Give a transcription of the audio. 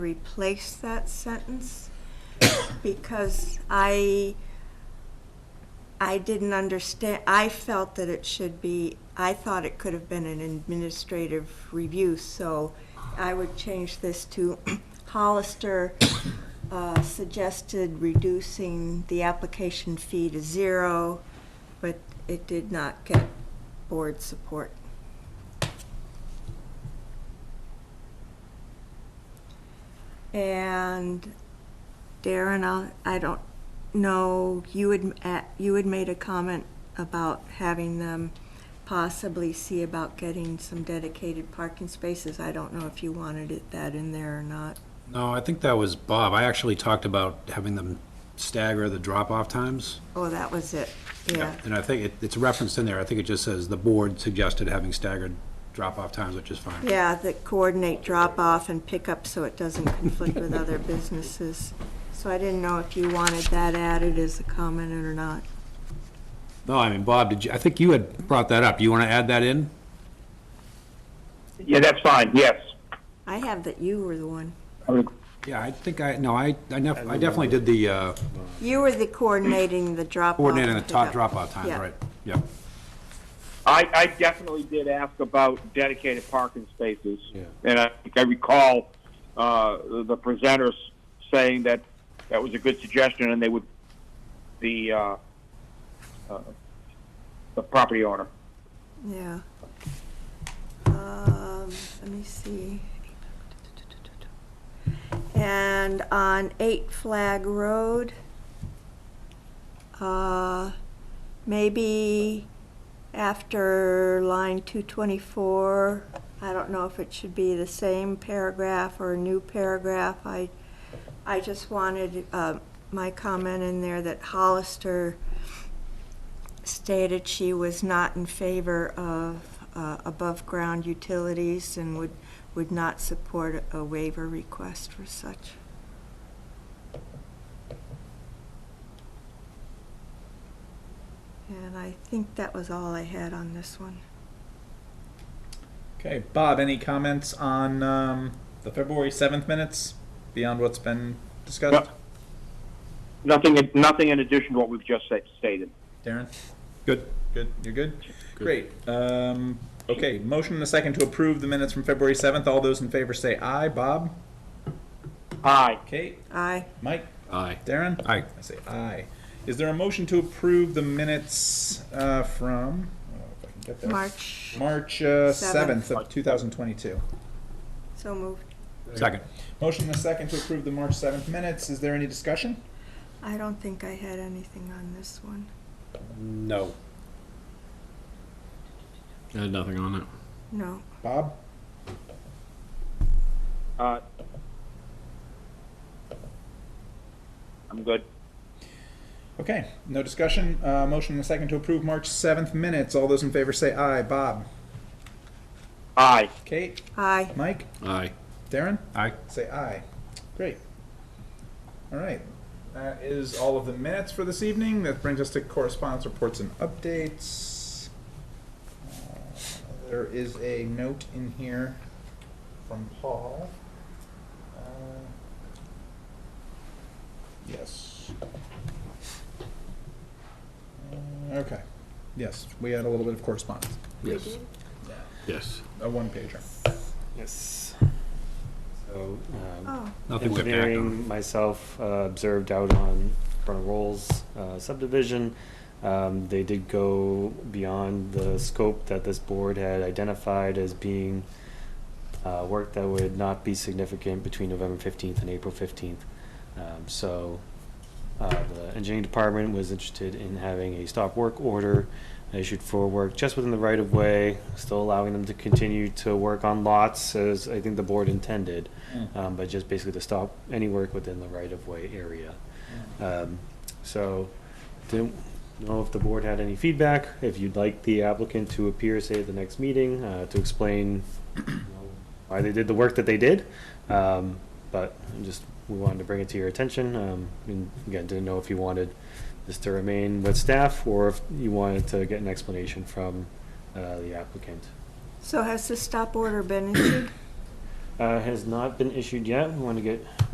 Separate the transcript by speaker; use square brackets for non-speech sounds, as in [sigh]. Speaker 1: replace that sentence because I, I didn't understand, I felt that it should be, I thought it could have been an administrative review, so I would change this to [coughs] Hollister uh, suggested reducing the application fee to zero, but it did not get board support. And Darren, I'll, I don't know, you had, uh, you had made a comment about having them possibly see about getting some dedicated parking spaces. I don't know if you wanted it, that in there or not.
Speaker 2: No, I think that was Bob. I actually talked about having them stagger the drop-off times.
Speaker 1: Oh, that was it, yeah.
Speaker 2: And I think it, it's referenced in there. I think it just says the board suggested having staggered drop-off times, which is fine.
Speaker 1: Yeah, that coordinate drop-off and pickup so it doesn't conflict with other businesses. So I didn't know if you wanted that added as a comment or not.
Speaker 2: No, I mean, Bob, did you, I think you had brought that up. Do you want to add that in?
Speaker 3: Yeah, that's fine, yes.
Speaker 1: I have that you were the one.
Speaker 2: Yeah, I think I, no, I, I nef- I definitely did the, uh,
Speaker 1: You were the coordinating the drop-off.
Speaker 2: coordinating the
Speaker 1: and
Speaker 2: top
Speaker 1: pickup.
Speaker 2: drop-off times,
Speaker 1: Oh, Yeah.
Speaker 2: right? Yeah.
Speaker 3: I, I definitely did ask about dedicated parking spaces.
Speaker 2: Yeah.
Speaker 3: And I, I recall, uh, the presenters saying that that was a good suggestion and they would, the, uh, uh, the property owner.
Speaker 1: Yeah. Um, let me see. And on Eight Flag Road, uh, maybe after line two twenty-four, I don't know if it should be the same paragraph or a new paragraph. I, I just wanted, uh, my comment in there that Hollister stated she was not in favor of uh, above-ground utilities and would, would not support a waiver request for such. And I think that was all I had on this one.
Speaker 4: Okay, Bob, any comments on um, the February 7th minutes beyond what's been discussed?
Speaker 3: Nothing, nothing in addition to what we've just said- stated.
Speaker 4: Darren?
Speaker 2: Good.
Speaker 4: Good, you're good? Great. Um, okay, motion and a second to approve the minutes from February 7th. All those in favor say aye. Bob?
Speaker 3: Aye.
Speaker 4: Kate?
Speaker 1: Aye,
Speaker 4: Mike?
Speaker 2: Aye.
Speaker 4: Darren?
Speaker 2: Aye.
Speaker 4: I say aye. Is there a motion to approve the minutes uh, from? I don't know if I can get there.
Speaker 1: March,
Speaker 4: March uh,
Speaker 1: Seventh.
Speaker 4: 7th of 2022.
Speaker 1: so moved.
Speaker 2: Second.
Speaker 4: Motion and a second to approve the March 7th minutes. Is there any discussion?
Speaker 1: I don't think I had anything on this one.
Speaker 2: No.
Speaker 5: I had nothing on it.
Speaker 1: No,
Speaker 4: Bob?
Speaker 3: Uh, I'm good.
Speaker 4: Okay, no discussion. Uh, motion and a second to approve March 7th minutes. All those in favor say aye. Bob?
Speaker 3: Aye.
Speaker 4: Kate?
Speaker 1: aye,
Speaker 4: Mike?
Speaker 5: Aye.
Speaker 4: Darren?
Speaker 2: Aye.
Speaker 4: Say aye. Great. All right. That is all of the minutes for this evening. That brings us to correspondence reports and updates. Uh, There is a note in here from Paul. Uh, Yes. Uh, Okay. Yes, we had a little bit of correspondence,
Speaker 5: Yes. Yes.
Speaker 4: a one pager.
Speaker 6: Yes. So, um,
Speaker 1: oh,
Speaker 2: Nothing went back on.
Speaker 6: engineering, myself, uh, observed out on Burner Rolls uh, subdivision. Um, they did go beyond the scope that this board had identified as being uh, work that would not be significant between November fifteenth and April fifteenth. Um, so, uh, the engineering department was interested in having a stop work order issued for work just within the right of way, still allowing them to continue to work on lots as I think the board intended,
Speaker 4: Mm.
Speaker 6: um, but just basically to stop any work within the right of way area. Um, so, didn't know if the board had any feedback, if you'd like the applicant to appear, say, at the next meeting, uh, to explain you know, why they did the work that they did. Um, but I'm just, we wanted to bring it to your attention, um, and again, didn't know if you wanted this to remain with staff, or if you wanted to get an explanation from, uh, the applicant.
Speaker 1: so has the stop order been issued?
Speaker 6: Uh, uh, has not been issued yet. We want to get